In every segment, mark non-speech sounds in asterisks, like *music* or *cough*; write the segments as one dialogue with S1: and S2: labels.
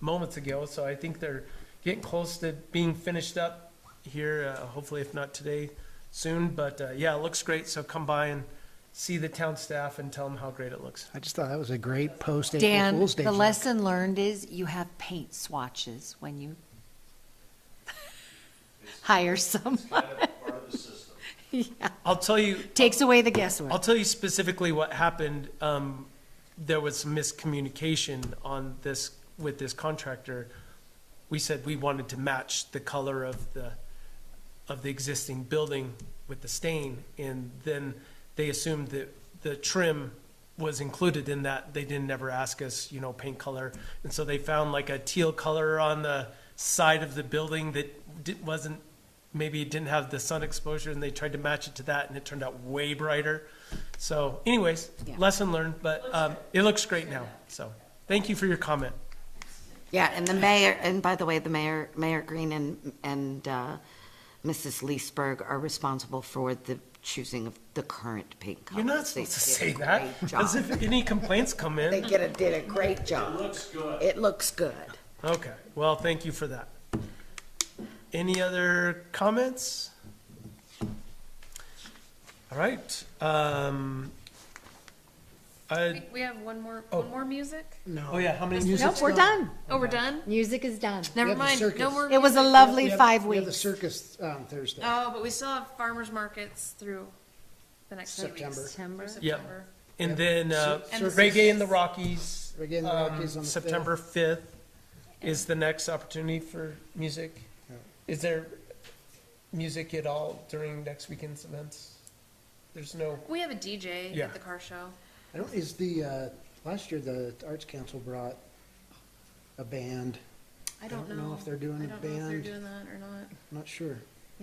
S1: moments ago, so I think they're getting close to being finished up here, uh, hopefully if not today, soon. But uh, yeah, it looks great, so come by and see the town staff and tell them how great it looks.
S2: I just thought that was a great post April
S3: Dan,
S2: Fool's Day.
S3: the
S2: joke.
S3: lesson learned is you have paint swatches when you hire someone. *laughs*
S1: I'll tell you,
S3: Takes away the
S1: I'll
S3: guesswork.
S1: tell you specifically what happened. Um, there was some miscommunication on this, with this contractor. We said we wanted to match the color of the, of the existing building with the stain. And then they assumed that the trim was included in that. They didn't ever ask us, you know, paint color. And so they found like a teal color on the side of the building that di- wasn't maybe it didn't have the sun exposure and they tried to match it to that and it turned out way brighter. So anyways,
S3: Yeah.
S1: lesson learned, but um, it looks great now. So thank you for your comment.
S4: Yeah, and the mayor, and by the way, the mayor, Mayor Green and, and uh, Mrs. Leesburg are responsible for the choosing of the current paint colors.
S1: You're not
S4: They
S1: supposed to say
S4: did a
S1: that.
S4: great
S1: As
S4: job.
S1: if any complaints come
S4: They
S1: in.
S4: get a, did a great job. It looks good. It looks good.
S1: Okay, well, thank you for that. Any other comments? All right. Um, I,
S5: We- We have one more,
S1: Oh.
S5: one more music?
S1: oh yeah, how many?
S3: Nope,
S2: uh,
S3: we're done.
S5: Oh, we're done?
S3: Music is done.
S5: Never
S2: have the
S5: mind, no
S2: circus.
S5: more.
S3: It was a
S5: music.
S2: We
S3: lovely
S2: have-
S3: five
S2: We have the
S3: weeks.
S2: circus um, Thursday.
S5: Oh, but we still have farmers markets through the next few weeks.
S2: September.
S3: September.
S5: Through
S1: Yeah.
S5: September.
S1: And then uh,
S5: And the
S1: Reggae in the Rockies.
S2: Reggae in the
S1: um,
S2: Rockies on the
S1: September fifth is the next opportunity for music. Is there music at all during next weekend's events? There's no,
S5: We have a DJ
S1: Yeah.
S5: at the car show.
S2: I don't, is the, uh, last year the Arts Council brought a band.
S5: I don't know.
S2: if they're doing a
S5: I don't know if they're
S2: band.
S5: doing that or not.
S2: I'm not sure.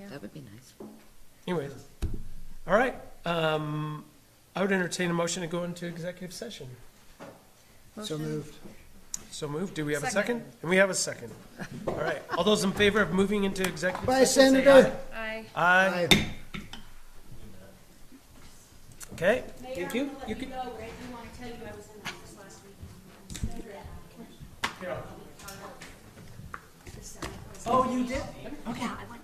S4: That would be nice.
S1: anyways. All right, um, I would entertain a motion to go into executive session.
S2: So
S5: Motion.
S2: moved.
S1: So moved, do we have a
S5: Second.
S1: second? And we have a second. All right, all those in favor of moving into executive
S2: Bye,
S1: session? say
S2: Senator.
S5: I.
S1: Aye. Aye,
S2: Bye.
S1: okay, thank you. You
S6: You
S1: can,
S6: go, Greg, you want to tell you I was in the office last week.
S1: oh, you did? Oh,
S6: Yeah, I went